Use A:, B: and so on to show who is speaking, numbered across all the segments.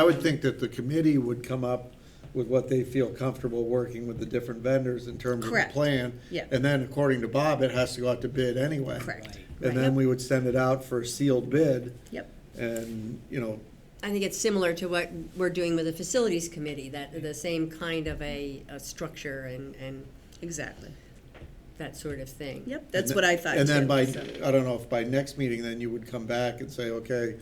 A: I would think that the committee would come up with what they feel comfortable working with the different vendors in terms of the
B: Correct.
A: plan.
B: Yeah.
A: And then according to Bob, it has to go out to bid anyway.
B: Correct.
A: And then we would send it out for a sealed bid
B: Yep.
A: and, you know,
C: I think it's similar to what we're doing with the facilities committee, that the same kind of a, a structure and, and
B: Exactly.
C: that sort of thing.
B: Yep, that's what I thought
A: And then
B: too,
A: by,
B: so.
A: I don't know if by next meeting, then you would come back and say, okay,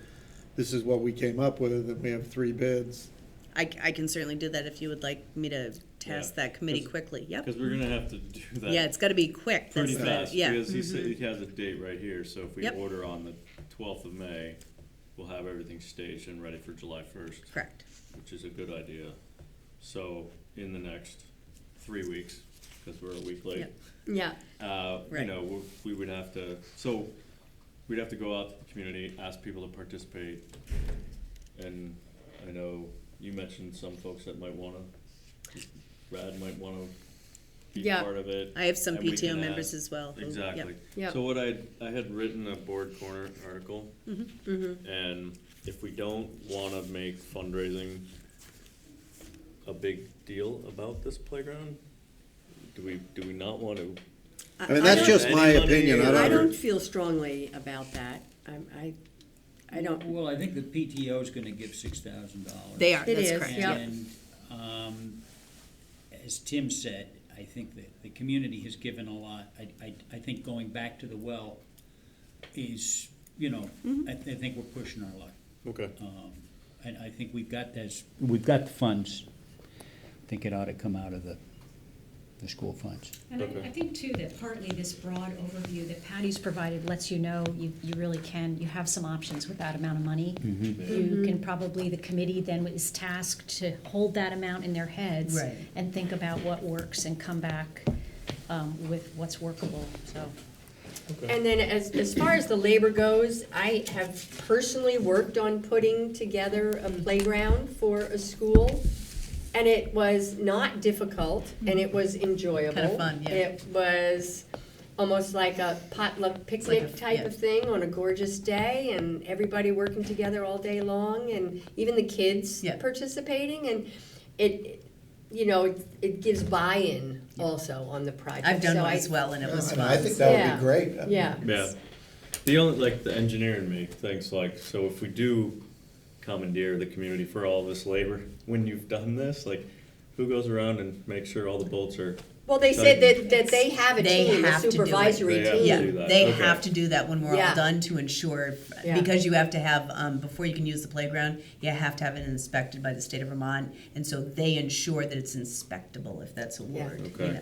A: this is what we came up with, and we have three bids.
B: I, I can certainly do that if you would like me to task
D: Yeah,
B: that committee
D: 'cause-
B: quickly. Yep.
D: Because we're gonna have to do that.
B: Yeah, it's got to be quick.
D: Pretty
B: That's the-
D: fast,
B: yeah.
D: because he said, he has a date right here, so if we
B: Yep.
D: order on the twelfth of May, we'll have everything staged and ready for July first,
B: Mm-hmm. Correct.
D: which is a good idea. So, in the next three weeks, because we're a week late,
B: Yep.
C: Yeah,
D: uh, you
B: Right.
D: know, we- we would have to, so, we'd have to go out to the community, ask people to participate. And I know you mentioned some folks that might wanna, Brad might wanna be
C: Yeah.
D: part of it.
B: I have some
D: and we
B: PTO
D: can
B: members
D: ask-
B: as well. who- yep.
D: Exactly.
C: Yep.
D: So what I, I had written a board corner article. And if we don't wanna make fundraising a big deal about this playground, do we, do we not wanna?
A: I mean, that's
C: don't-
A: just my
D: Anybody-
A: opinion, I
C: I
A: don't,
C: don't feel strongly about that. I'm, I, I don't,
E: Well, I think the PTO is gonna give six thousand dollars.
B: They are.
C: It
B: that's
C: is,
B: correct.
C: yeah.
E: And, um, as Tim said, I think that the community has given a lot. I, I, I think going back to the well is, you know,
B: Mm-hmm.
E: I, th- I think we're pushing our luck.
D: Okay.
E: Um, and I think we've got this, we've got the funds. I think it ought to come out of the, the school funds.
F: And I,
D: Okay.
F: I think too that partly this broad overview that Patty's provided lets you know you, you really can, you have some options with that amount of money. You can probably, the committee then is tasked to hold that amount in their heads.
B: Right.
F: And think about what works and come back, um, with what's workable, so.
C: and then as, as far as the labor goes, I have personally worked on putting together a playground for a school. And it was not difficult and it was enjoyable.
B: fun, yeah.
C: It was almost like a potluck picnic type
B: yeah.
C: of thing on a gorgeous day and everybody working together all day long and even the kids
B: Yeah.
C: participating and it, you know, it- it gives buy-in also on the project.
B: I've done
C: So
B: one
C: I-
B: as well, and it was fun.
G: I think that would
C: Yeah.
G: be great. I mean,
C: Yeah.
D: Yeah, the only, like, the engineer in me thinks like, so if we do commandeer the community for all this labor, when you've done this, like, who goes around and makes sure all the bolts are?
C: Well, they said that, that they have a
B: They
C: team, a
B: have to do it.
D: They
C: supervisory
D: have to
B: Yeah,
D: do
C: team.
D: that.
B: they
D: Okay.
B: have to do that when we're all
C: Yeah.
B: done to ensure,
C: Yeah.
B: because you have to have, um, before you can use the playground, you have to have it inspected by the state of Vermont, and so they ensure that it's inspectable, if that's a
C: Yeah.
B: word, you
D: Okay.
B: know.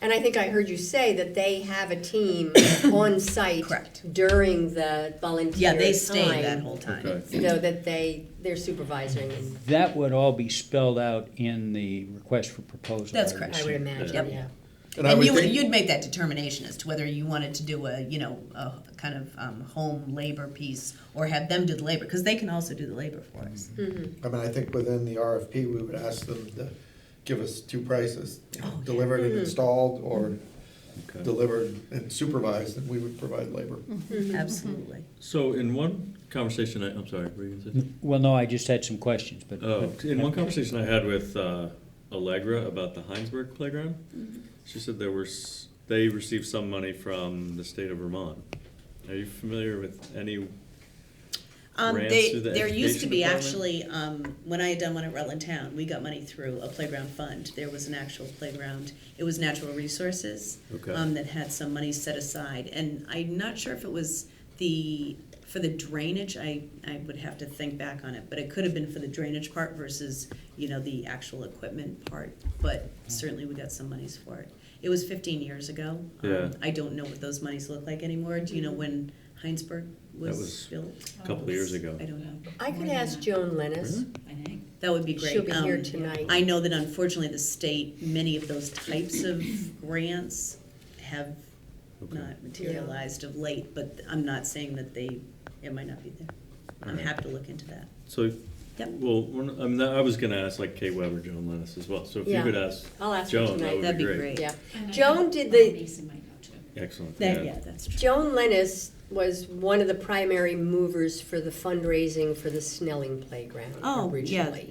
C: And I think I heard you say that they have a team on site
B: Correct.
C: during the volunteer time.
B: Yeah, they stay that whole time.
C: So that they, they're supervising, and
E: That would all be spelled out in the request for proposal.
B: That's
E: I
B: correct.
C: I would
E: received.
B: Yep.
C: imagine, yeah.
A: and I
B: And
A: would
B: you would,
A: think,
B: you'd make that determination as to whether you wanted to do a, you know, a kind of, um, home labor piece, or have them do the labor, because they can also do the labor for us.
G: I mean, I think within the RFP, we would ask them to give us two prices, you know, delivered and installed, or delivered and supervised, and we would provide labor.
B: Absolutely.
D: So in one conversation, I, I'm sorry, were you gonna say? something?
E: Well, no, I just had some questions, but.
D: Oh,
E: but-
D: in one conversation I had with uh, Allegra about the Heinsberg playground, she said there were s- they received some money from the state of Vermont. Are you familiar with any?
B: Um,
D: grants
B: they,
D: through the
B: there used to
D: education
B: be
D: department?
B: actually, um, when I had done one at Rutland Town, we got money through a playground fund. There was an actual playground. It was natural resources.
D: Okay.
B: Um, that had some money set aside. And I'm not sure if it was the, for the drainage, I, I would have to think back on it. But it could have been for the drainage part versus, you know, the actual equipment part. But certainly we got some monies for it. It was fifteen years ago. Um,
D: Yeah.
B: I don't know what those monies look like anymore. Do you know when Heinsberg was
D: was-
B: built?
D: A couple of years ago.
B: I don't know.
C: I could ask Joan Lennis.
B: That would be great.
C: She'll be here
B: Um,
C: tonight.
B: I know that unfortunately the state, many of those types of grants have not materialized of late, but I'm not saying that they, it might not be there. I'm
D: Alright.
B: happy to look into that.
D: So,
B: Yep.
D: well, one- I mean, I was gonna ask like Kate Weber, Joan Lennis as well. So if you
C: Yeah.
D: could ask
C: I'll ask her
D: Joan,
C: tonight.
D: that would
B: That'd
D: be
B: be
D: great.
B: great.
C: Yeah.
F: And I
C: Joan
F: think
C: did
F: Bob
C: the-
F: Mason might know too.
D: Excellent.
B: That, yeah, that's true.
C: Joan Lennis was one of the primary movers for the fundraising for the Snelling Playground
B: Oh, yeah.
C: originally.